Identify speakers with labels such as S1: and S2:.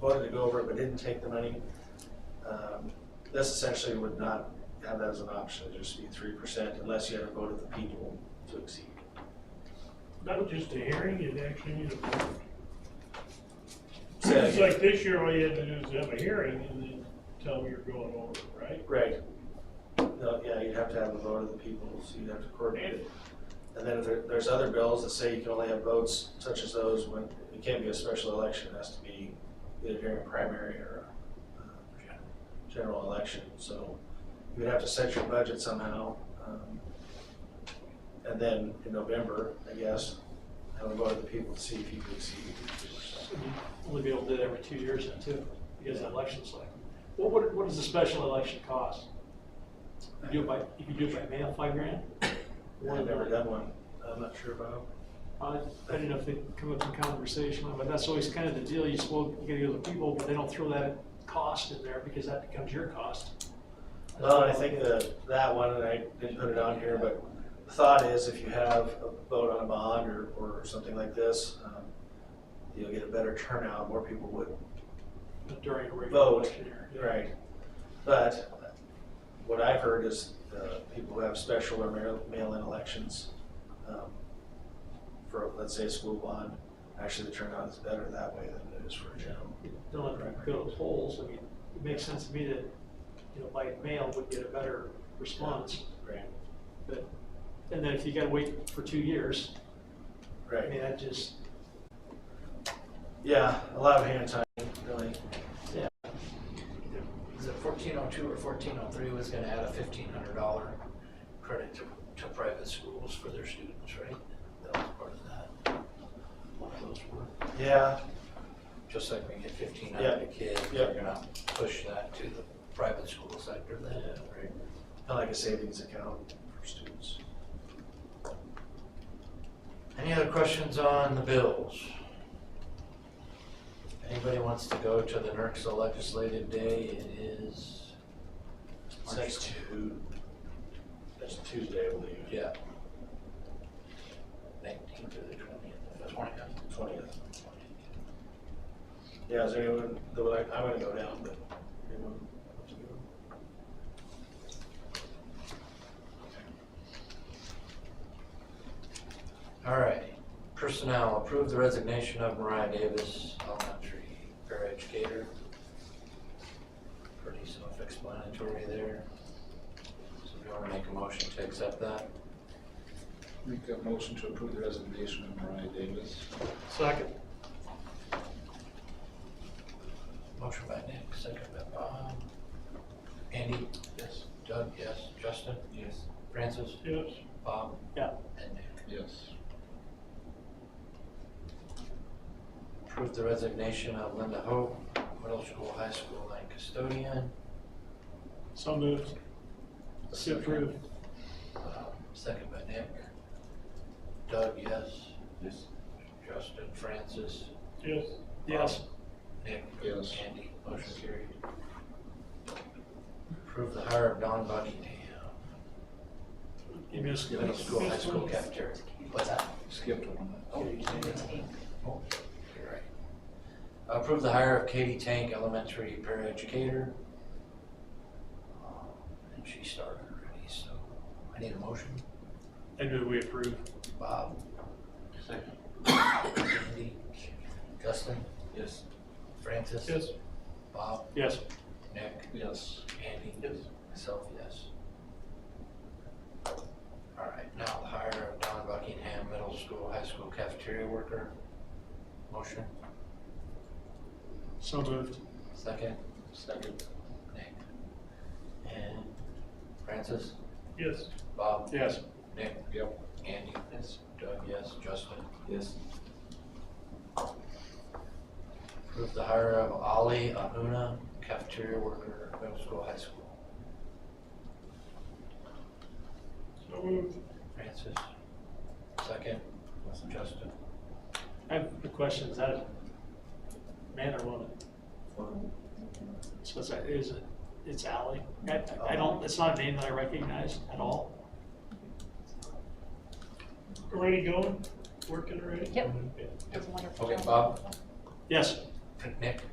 S1: voted to go over it but didn't take the money, um, this essentially would not have that as an option, it'd just be three percent unless you had a vote of the people to exceed.
S2: Not just a hearing, it actually needs a vote.
S1: Say that
S2: It's
S1: again.
S2: like this year, all you had to do is have a hearing and then tell them you're going over, it, right?
S1: Right. No, yeah, you'd have to have a vote of the people, so you'd have to coordinate it. And then if there, there's other bills that say you can only have votes such as those when, it can't be a special election, it has to be either during a primary or a uh, general election, so you'd have to set your budget somehow. um, And then in November, I guess, have a vote of the people to see if you can exceed two percent.
S3: Only be able to do that every two years then too, because the election's like, what, what, what does the special election cost? You do it by, you can do it by mail, five grand?
S1: I've never done one, I'm not sure about.
S3: I, I didn't know if they come up in conversation, but that's always kind of the deal, you spoke, you gotta go to the people, but they don't throw that cost in there because that becomes your cost.
S1: No, I think the, that one, and I didn't put it on here, but the thought is if you have a vote on a bond or, or something like this, um, you'll get a better turnout, more people would
S3: During a regular
S1: vote.
S3: election year.
S1: Right. But what I've heard is uh, people who have special or mail- mail-in elections um, for, let's say, a school bond, actually the turnout is better that way than it is for a general.
S3: Don't have to go to the polls, I mean, it makes sense to me that, you know, by mail would get a better response,
S1: Right.
S3: but, and then if you gotta wait for two years, I
S1: Right.
S3: mean, that just,
S1: Yeah, a lot of hand tying, really.
S4: Is it fourteen oh two or fourteen oh three was gonna add a fifteen hundred dollar credit to, to private schools for their students, right? That was part of that. One of those were,
S1: Yeah,
S4: just like we get fifteen
S1: Yeah.
S4: hundred a kid,
S1: Yeah.
S4: we're gonna push that to the private school sector then, right?
S1: kind of like a savings account for students.
S4: Any other questions on the bills? Anybody wants to go to the E NERC's legislative day, it is.
S1: It's
S4: March
S1: next Tu, next Tuesday, I believe,
S4: Yeah. Nineteenth to the twentieth, that's one of
S1: twentieth. Yeah, is there anyone, that would like- I'm gonna go down, but anyone? wants to go?
S4: All right, personnel, approve the resignation of Mariah Davis, elementary paraeducator. Pretty self-explanatory there. So if you wanna make a motion to accept that,
S5: Make a motion to approve the resignation of Mariah Davis.
S3: second.
S4: motion by Nick, second by Bob. Andy? Yes. Doug, yes. Justin? Yes. Francis?
S2: Yes,
S4: Bob?
S3: Yeah.
S4: And Nick.
S5: Yes.
S4: Approve the resignation of Linda Hope, middle school, high school line custodian.
S2: so moved. So approved.
S4: Um, Second by Nick. Doug, yes.
S5: Yes.
S4: Justin, Francis, Um,
S2: Yes,
S3: Yes,
S4: Nick.
S5: Yes.
S4: Andy, motion carried. Approve the hire of Don Buckingham,
S3: you missed
S4: middle
S3: it.
S4: school, high school cafeteria. What's that?
S5: Skipped one.
S4: Oh, you did it. Oh, you're right. Approve the hire of Katie Tank, elementary paraeducator. Um, And she started already, so I need a motion.
S2: I do, we approve.
S4: Bob? Second. Andy? Justin? Yes. Francis?
S2: Yes.
S4: Bob?
S3: Yes,
S4: Nick?
S5: Yes.
S4: Andy? Yes. Myself, yes. All right, now the hire of Don Buckingham, middle school, high school cafeteria worker. Motion,
S2: So moved.
S4: second,
S5: Second.
S4: Nick. And Francis?
S2: Yes.
S4: Bob?
S2: Yes.
S4: Nick?
S5: Yep.
S4: Andy? Yes. Doug, yes. Justin?
S5: Yes.
S4: Approve the hire of Ali Ahuna, cafeteria worker, middle school, high school.
S2: So moved.
S4: Francis, second. Justin,
S3: I have a question, is that a man or woman? So it's, a- is it, it's Ally? I, I don't, it's not a name that I recognize at all.
S2: Already going? Working already?
S6: Yep.
S2: Yeah.
S6: It's a wonderful.
S4: okay,
S6: job.
S4: Bob,
S3: Yes,
S4: Nick,